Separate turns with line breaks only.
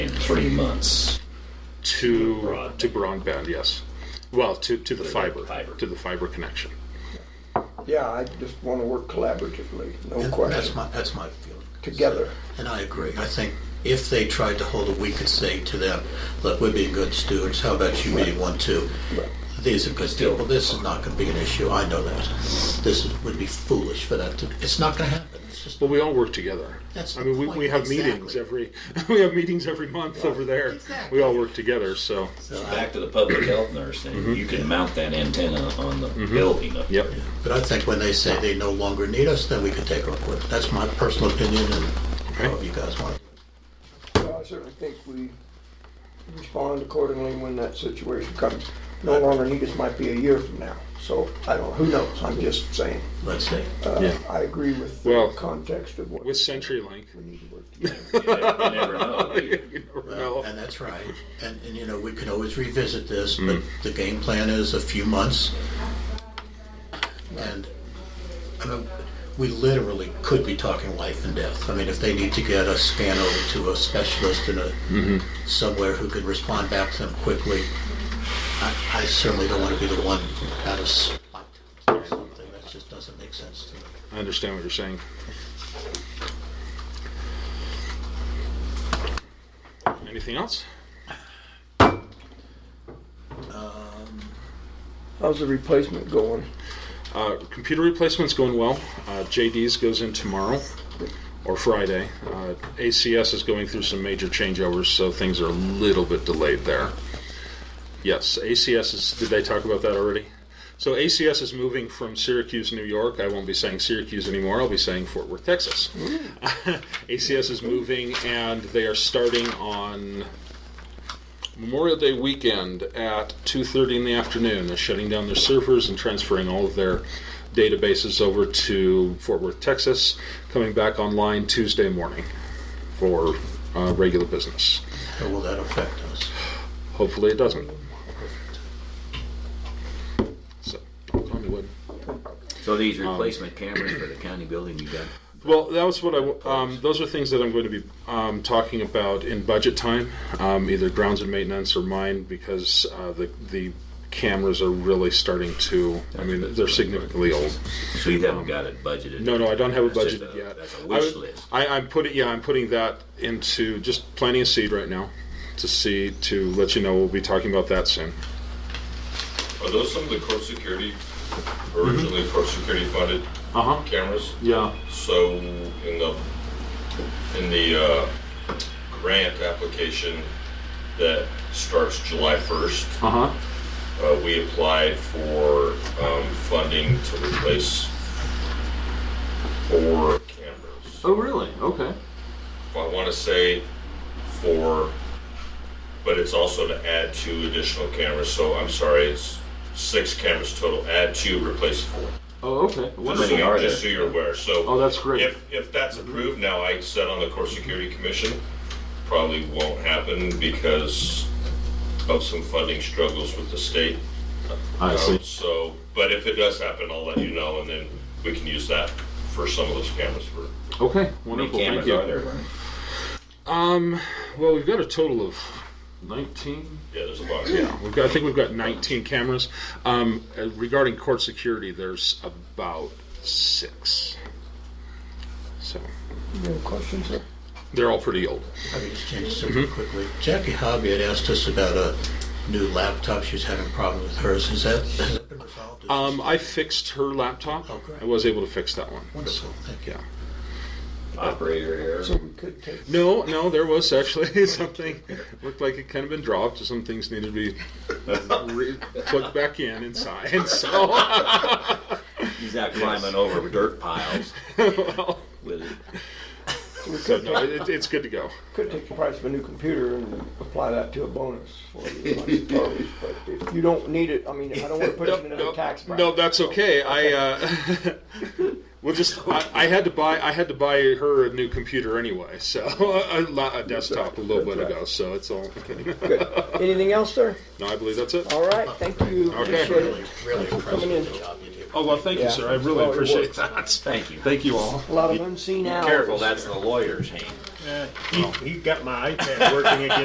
three months.
to
Broadband.
to broadband. Yes, well, to to the fiber,
fiber.
to the fiber connection.
Yeah, I just want to work collaboratively, no
That's
question,
my, that's my feeling.
together.
And I agree. I think if they tried to hold it, we could say to them, look, we're being good students. How about you being one too? These are good people. This is not going to be an issue. I know that. This is- would be foolish for that to, it's not going to happen. It's just,
Well, we all work together.
That's
I mean, we,
the
we
point,
have meetings every we have meetings every month over there.
Exactly.
We all work together. So
so I-
Back to the public health nurse thing, you can mount that antenna on the building. up
Mm-hmm. yep.
but I think when they say they no longer need us, then we can take our quit. That's my personal opinion and however you guys want.
So I certainly think we respond accordingly when that situation comes. No longer need us might be a year from now, so I don't, who knows, I'm just saying.
Let's see.
Uh,
Yeah.
I agree with
Well,
the context of what.
With CenturyLink,
We need to work together.
there. You never- you never know.
you never know.
And that's right. And, and you know, we can always revisit this, but the game plan is a few months. And, I mean, we literally could be talking life and death. I mean, if they need to get a scan over to a specialist in a, somewhere who can respond back to them quickly, I, I certainly don't want to be the one out of spot or something. That just doesn't make sense to me.
I understand what you're saying. Anything else?
How's the replacement going?
Uh, computer replacement's going well. Uh, JD's goes in tomorrow or Friday. Uh, ACS is going through some major changeovers, so things are a little bit delayed there. Yes, ACS is. Did they talk about that already? So ACS is moving from Syracuse, New York. I won't be saying Syracuse anymore. I'll be saying Fort Worth, Texas. ACS is moving, and they are starting on Memorial Day weekend at 2:30 in the afternoon. They're shutting down their servers and transferring all of their databases over to Fort Worth, Texas. Coming back online Tuesday morning for uh, regular business.
How will that affect us?
Hopefully, it doesn't. So, knock on wood.
So these
Um,
replacement cameras for the county building, you got,
Well, that was what I. w- Um, those are things that I'm going to be um, talking about in budget time, um, either grounds and maintenance or mine, because uh, the the cameras are really starting to. I mean, they're significantly old.
so you haven't got it budgeted?
No, no, I don't have a
That's just
budget
a-
yet.
That's a
I
wish
would-
list.
I, I'm putting. Yeah, I'm putting that into just planting a seed right now to see to let you know we'll be talking about that soon.
Are those some of the court security, originally court security funded
Uh huh.
cameras?
Yeah.
So in the, in the uh, grant application that starts July 1st,
Uh huh.
uh, we applied for um, funding to replace four cameras.
Oh, really? Okay.
I want to say four, but it's also to add two additional cameras, so I'm sorry, it's six cameras total, add two, replace four.
Oh, okay.
Just so
many are
you- just so
there?
you're aware,
Oh,
so
that's great.
if, if that's approved, now I said on the Core Security Commission, probably won't happen because of some funding struggles with the state.
I see.
Um, So, but if it does happen, I'll let you know, and then we can use that for some of those cameras for
How
Okay.
many
Wonderful. Thank
cameras
you.
are there, Vernon?
Um, well, we've got a total of 19.
Yeah, there's a lot.
Yeah, we've got, I think we've got 19 cameras. Um, uh, regarding court security, there's about six. So
No questions there?
they're all pretty old.
I mean, just change the subject quickly. Jackie Hobby had asked us about a new laptop. She was having a problem with hers. Is that, has that been resolved? Is
Um, I fixed her laptop.
Oh, great.
I was able to fix that one.
Wonderful, thank you.
Yeah.
Operator error.
So we could take,
No, no, there was actually something looked like it kind of been dropped. Some things needed to be re- plugged back in inside. And so,
He's not climbing over dirt piles
well,
with it.
we
so
could
no,
take,
it, it's good to go.
could take the price of a new computer and apply that to a bonus for you, I suppose. But if you don't need it, I mean, I don't want to put it in another tax bracket.
No, that's okay. I uh, we'll just. I, I had to buy. I had to buy her a new computer anyway. So a, la- a desktop a little bit ago. So it's all.
Good. Anything else, sir?
no, I believe that's it.
All right, thank you.
Okay.
Appreciate
Really,
it.
really impressed
coming in.
with the job you did.
Oh well, thank
Yeah.
you, sir. I really
Oh, you're
appreciate that.
Thank you.
Thank you all.
A lot of unseen hours.
Careful, that's the lawyer's hand.
He, he got my iPad working again.